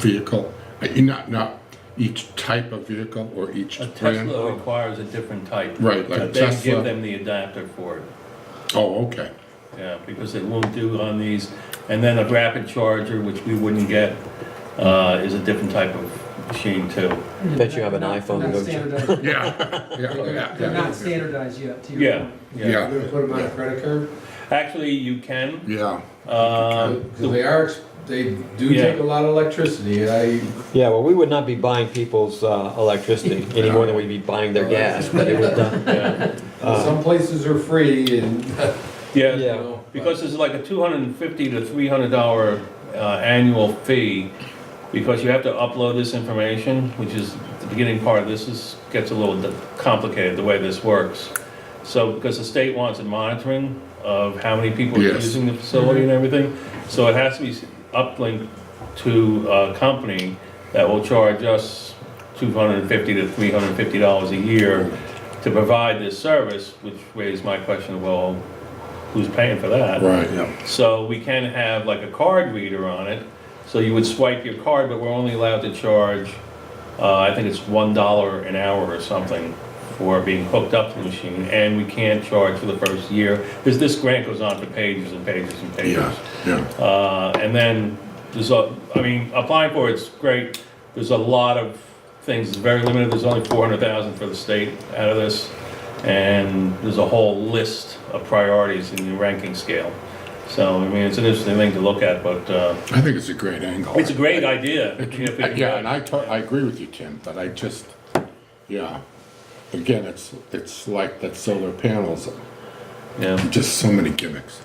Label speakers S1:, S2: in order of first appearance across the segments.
S1: vehicle, uh, you not, not each type of vehicle or each
S2: A
S1: brand?
S2: Tesla requires a different type.
S1: Right, like
S2: But They
S1: Tesla.
S2: give them the adapter for it,
S1: Oh, okay,
S2: yeah, because it won't do on these. And then a rapid charger, which we wouldn't get, uh, is a different type of machine too.
S3: Bet you have an
S4: They're not-
S3: iPhone,
S4: they're
S3: don't
S4: Not
S3: you?
S4: standardized.
S1: yeah, yeah,
S4: They're
S1: yeah,
S4: not- they're
S1: yeah,
S4: not standardized yet, to your
S2: Yeah,
S4: point.
S1: yeah,
S5: You're gonna put them on a credit card?
S2: Actually, you can,
S1: yeah,
S2: um,
S5: Because they are, ex- they do
S2: Yeah.
S5: take a lot of electricity, I,
S3: Yeah, well, we would not be buying people's uh, electricity any more than we'd be buying their gas, but it would, uh,
S2: yeah,
S3: uh,
S5: some places are free and,
S2: yeah.
S5: you
S3: yeah.
S5: know.
S2: Because it's like a two hundred and fifty to three hundred dollar, uh, annual fee, because you have to upload this information, which is, the beginning part of this is, gets a little complicated, the way this works. So, because the state wants a monitoring of how many people are
S1: Yes.
S2: using the facility and everything, so it has to be uplinked to a company that will charge us two hundred and fifty to three hundred and fifty dollars a year to provide this service, which raised my question, well, who's paying for that?
S1: right, yeah.
S2: So we can have like a card reader on it, so you would swipe your card, but we're only allowed to charge, uh, I think it's one dollar an hour or something for being hooked up to the machine, and we can't charge for the first year, because this grant goes on for pages and pages and pages.
S1: Yeah, yeah,
S2: Uh, and then there's a, I mean, applying for it's great. There's a lot of things, it's very limited. There's only 400,000 for the state out of this. And there's a whole list of priorities in the ranking scale. So, I mean, it's an interesting thing to look at, but, uh,
S1: I think it's a great angle.
S2: it's a great idea. if you
S1: Uh,
S2: can-
S1: Yeah, and I, to- I agree with you, Tim, but I just, yeah, again, it's, it's like that solar panels,
S2: Yeah.
S1: just so many gimmicks.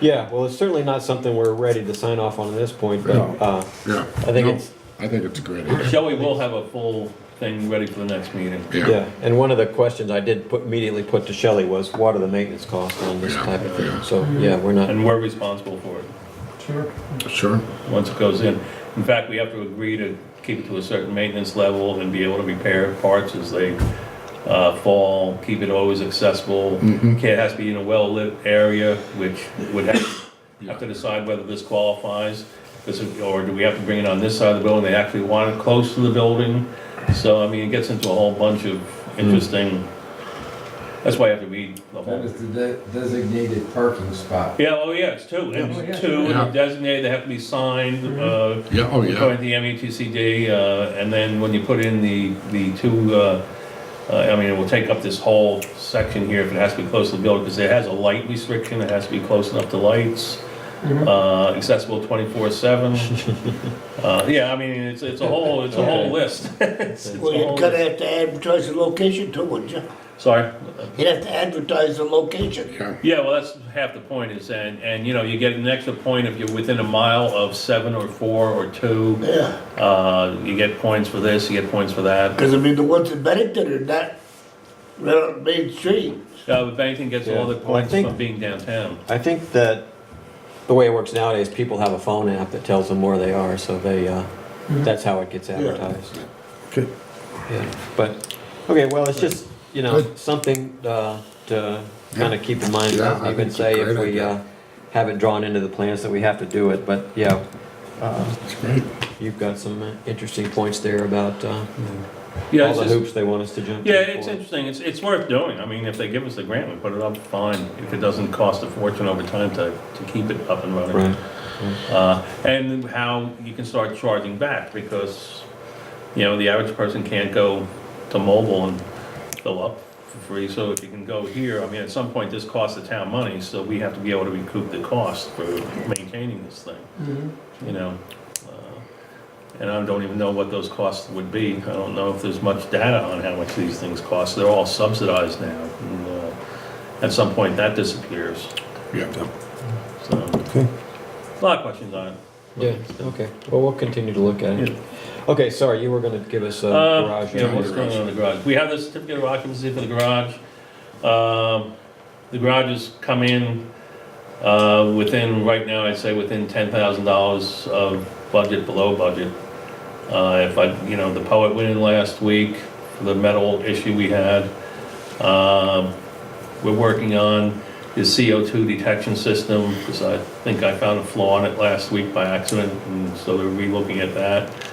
S3: Yeah, well, it's certainly not something we're ready to sign off on at this point, but,
S1: No.
S3: uh,
S1: Yeah.
S3: I think
S1: No,
S3: it's-
S1: I think it's a great idea.
S2: Shelley will have a full thing ready for the next meeting.
S1: Yeah,
S3: yeah. And one of the questions I did put, immediately put to Shelley was, what are the maintenance costs on this
S1: Yeah,
S3: type of
S1: yeah.
S3: thing? So, yeah, we're not,
S2: And we're responsible for it.
S5: Sure.
S1: sure.
S2: once it goes in. In fact, we have to agree to keep it to a certain maintenance level and be able to repair parts as they uh, fall, keep it always accessible.
S1: Mm-hmm.
S2: Can't, has to be in a well-lit area, which would have, have to decide whether this qualifies. This, is- or do we have to bring it on this side of the building? They actually want it close to the building. So, I mean, it gets into a whole bunch of interesting, that's why you have to read the whole
S5: That is the de- designated parking spot.
S2: yeah, oh yeah, it's two,
S4: Oh, yeah.
S2: it's two, and
S1: Yeah.
S2: they're designated, they have to be signed, uh,
S1: Yeah, oh, yeah,
S2: according to the METCD, uh, and then when you put in the, the two, uh, uh, I mean, it will take up this whole section here if it has to be close to the building, because it has a light restriction, it has to be close enough to lights, uh, accessible twenty-four seven. Uh, yeah, I mean, it's, it's a whole, it's a whole list. It's- it's a
S6: Well,
S2: whole
S6: you'd gotta
S2: list.
S6: have to advertise the location too, wouldn't you?
S2: Sorry?
S6: You'd have to advertise the location.
S1: yeah,
S2: Yeah, well, that's half the point is, and, and, you know, you get an extra point if you're within a mile of seven or four or two.
S6: Yeah,
S2: Uh, you get points for this, you get points for that.
S6: because I mean, the ones in Bennington are not right on Main Street.
S2: Uh, but Bennington gets all the
S3: Yeah, well, I
S2: points
S3: think-
S2: from being downtown.
S3: I think that the way it works nowadays, people have a phone app that tells them where they are, so they, uh,
S2: Mm-hmm.
S3: that's how it gets advertised.
S1: Good.
S3: Yeah, but, okay, well, it's just, you know, something, uh, to kind of keep in mind.
S1: Yeah, I
S3: You
S1: think
S3: can
S1: it's a
S3: say
S1: great
S3: if we,
S1: idea.
S3: uh, have it drawn into the plans that we have to do it, but, yeah. uh,
S1: it's great.
S3: You've got some uh, interesting points there about, uh,
S2: Yeah,
S3: all
S2: it's
S3: the
S2: just,
S3: hoops they want us to jump through.
S2: yeah, it's
S3: for it.
S2: interesting. It's, it's worth doing. I mean, if they give us the grant, we put it up, fine. If it doesn't cost a fortune over time to, to keep it up and running.
S3: Right.
S2: Uh, and how you can start charging back because, you know, the average person can't go to mobile and fill up for free. So if you can go here, I mean, at some point, this costs the town money, so we have to be able to recoup the cost for maintaining this thing,
S4: Mhm.
S2: you know? Uh, And I don't even know what those costs would be. I don't know if there's much data on how much these things cost. They're all subsidized now. and, uh, At some point, that disappears,
S1: Yeah,
S2: so. A lot of questions on it.
S3: Yeah, okay, well, we'll continue to look at it. Okay, sorry, you were gonna give us a
S2: Uh,
S3: garage.
S2: Yeah,
S3: or-
S2: what's going on in the garage? We have the certificate of occupancy for the garage. Um, The garages come in uh, within, right now, I'd say within $10,000 of budget, below budget. Uh, If I, you know, the poet went in last week, for the metal issue we had. Um, We're working on the CO2 detection system, because I think I found a flaw in it last week by accident, and so they're relooking at that.